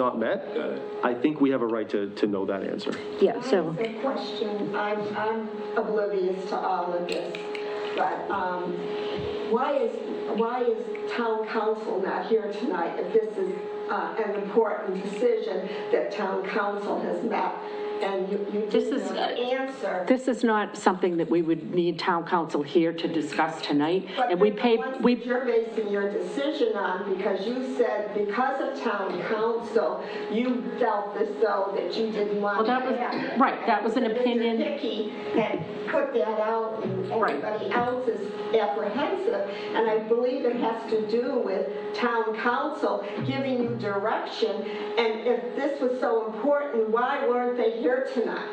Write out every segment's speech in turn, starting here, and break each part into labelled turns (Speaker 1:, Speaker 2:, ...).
Speaker 1: not met, I think we have a right to, to know that answer.
Speaker 2: Yeah, so,
Speaker 3: The question, I'm, I'm oblivious to all of this, but um, why is, why is town council not here tonight if this is uh, an important decision that town council has met? And you, you
Speaker 4: This
Speaker 3: didn't
Speaker 4: is, uh,
Speaker 3: answer.
Speaker 4: This is not something that we would need town council here to discuss tonight,
Speaker 3: But
Speaker 4: and we
Speaker 3: the
Speaker 4: pay,
Speaker 3: ones that
Speaker 4: we,
Speaker 3: You're basing your decision on because you said because of town council, you felt as though that you didn't want.
Speaker 4: Well, that was-
Speaker 3: to have it.
Speaker 4: right, that was an
Speaker 3: And Mr.
Speaker 4: opinion.
Speaker 3: Dickey had put that out and
Speaker 4: Right.
Speaker 3: everybody else is apprehensive. And I believe it has to do with town council giving you direction. And if this was so important, why weren't they here tonight?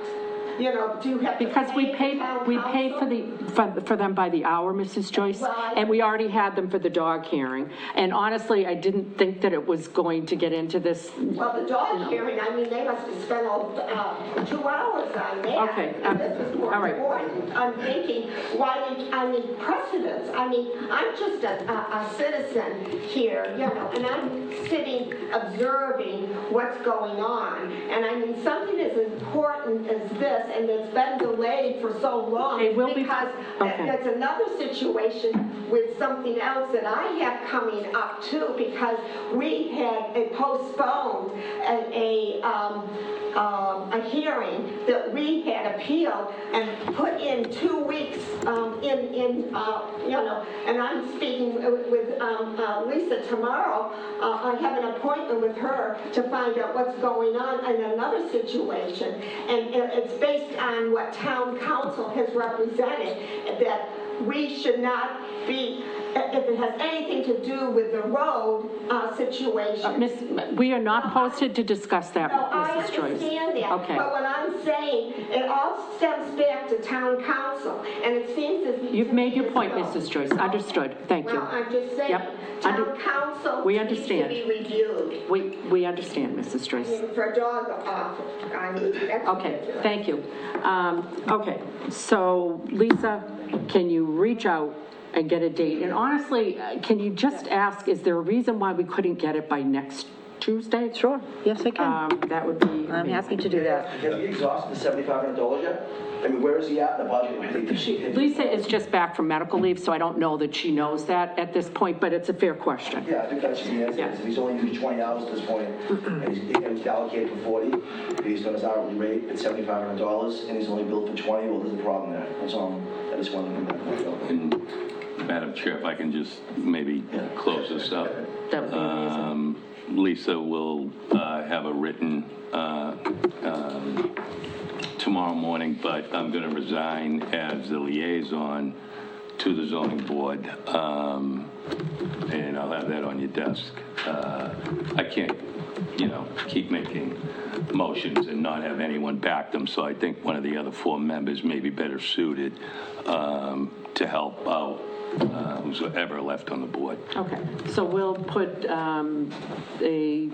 Speaker 3: You know, do you have to
Speaker 4: because we
Speaker 3: pay
Speaker 4: paid,
Speaker 3: the town
Speaker 4: we paid for
Speaker 3: council?
Speaker 4: the, for- for them by the hour, Mrs. Joyce, and we already had them for the dog hearing. And honestly, I didn't think that it was going to get into this.
Speaker 3: Well, the dog hearing, I mean, they must have spent all, uh, two hours on that.
Speaker 4: Okay,
Speaker 3: And
Speaker 4: um,
Speaker 3: This is more
Speaker 4: all right.
Speaker 3: important. I'm thinking, why did, I need precedence. I mean, I'm just a, a a citizen here, you know, and I'm sitting observing what's going on. And I mean, something as important as this, and it's been delayed for so long.
Speaker 4: It will be-
Speaker 3: Because
Speaker 4: okay.
Speaker 3: that's that's another situation with something else that I have coming up too, because we had a postponed a, a, um, um, a hearing that we had appealed and put in two weeks, um, in, in, uh, you know, and I'm speaking with, with, um, uh, Lisa tomorrow. Uh, I have an appointment with her to find out what's going on in another situation. And it- it's based on what town council has represented, that we should not be, if it has anything to do with the road uh, situation.
Speaker 4: Miss, we are not posted to discuss that,
Speaker 3: No, I
Speaker 4: Mrs. Joyce.
Speaker 3: understand that,
Speaker 4: Okay.
Speaker 3: but what I'm saying, it all stems back to town council, and it seems as.
Speaker 4: You've made your point,
Speaker 3: Well,
Speaker 4: Mrs. Joyce. Understood. Thank you.
Speaker 3: Well, I'm just saying,
Speaker 4: Yep. Under-
Speaker 3: town council.
Speaker 4: We
Speaker 3: Needs to
Speaker 4: understand.
Speaker 3: be reviewed
Speaker 4: We, we understand, Mrs. Joyce.
Speaker 3: for dog office. I mean, that's-
Speaker 4: Okay, thank you. Um, Okay, so Lisa, can you reach out and get a date? And honestly, uh, can you just ask, is there a reason why we couldn't get it by next Tuesday? Sure.
Speaker 2: yes, I can.
Speaker 4: That would be
Speaker 2: I'm happy
Speaker 4: amazing.
Speaker 2: to do that.
Speaker 5: Have you exhausted the seventy-five hundred dollars yet? I mean, where is he at in the budget?
Speaker 4: Lisa is just back from medical leave, so I don't know that she knows that at this point, but it's a fair question.
Speaker 5: Yeah, I think that should be answered, because he's only used twenty hours at this point, and he's, and he's allocated for forty, based on his hourly rate, it's seventy-five hundred dollars, and he's only billed for twenty, well, there's a problem there, that's all, I just wanted to bring that point up.
Speaker 6: And Madam Chair, if I can just maybe close this up.
Speaker 4: That would be amazing.
Speaker 6: Um, Lisa will uh, have a written uh, um, tomorrow morning, but I'm going to resign as the liaison to the zoning board, um, and I'll have that on your desk. Uh, I can't, you know, keep making motions and not have anyone back them, so I think one of the other four members may be better suited um, to help out uh, who's ever left on the board.
Speaker 4: Okay, so we'll put um, a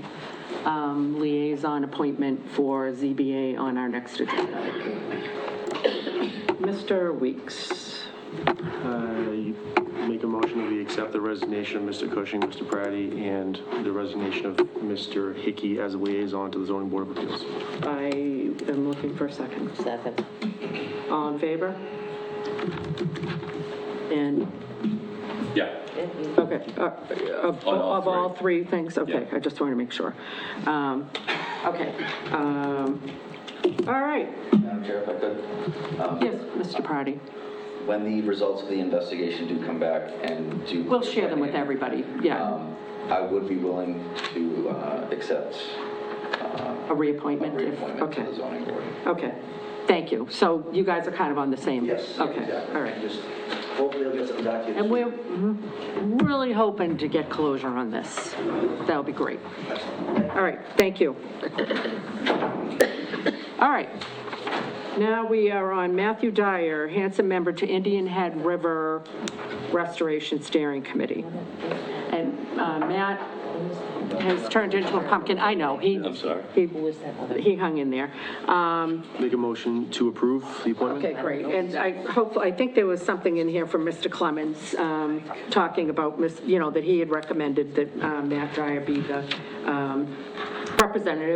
Speaker 4: um, liaison appointment for ZBA on our next agenda.
Speaker 7: Mr. Weeks,
Speaker 1: I Uh, make a motion that we accept the resignation of Mr. Cushing, Mr. Praddy, and the resignation of Mr. Hickey as a liaison to the zoning board of appeals.
Speaker 7: I am looking for a second.
Speaker 2: Second.
Speaker 7: All in favor?
Speaker 4: And,
Speaker 6: Yeah.
Speaker 4: okay, uh, of
Speaker 6: On all
Speaker 4: of all three things, okay,
Speaker 6: Yeah.
Speaker 4: I just wanted to make sure. Um, Okay, um, all right,
Speaker 8: Madam Chair, if I could, um,
Speaker 4: yes, Mr. Party,
Speaker 8: when the results of the investigation do come back and do.
Speaker 4: we'll share them with everybody, yeah,
Speaker 8: Um, I would be willing to uh, accept
Speaker 4: a
Speaker 8: a
Speaker 4: reappointment, if,
Speaker 8: reappointment
Speaker 4: okay,
Speaker 8: to the zoning board.
Speaker 4: okay, thank you. So you guys are kind of on the same?
Speaker 5: Yes.
Speaker 4: Okay,
Speaker 5: exactly.
Speaker 4: all right.
Speaker 5: Just, hopefully he'll get some documents.
Speaker 4: And we're really hoping to get closure on this. That would be great. All right, thank you. All right. Now we are on Matthew Dyer, handsome member to Indian Head River Restoration Steering Committee. And uh, Matt has turned into a pumpkin, I know, he,
Speaker 6: I'm sorry.
Speaker 4: he he hung in there. Um,
Speaker 1: Make a motion to approve the appointment?
Speaker 4: Okay, great. And I hope, I think there was something in here from Mr. Clemens um, talking about, Miss- you know, that he had recommended that um, Matt Dyer be the um, rep- representative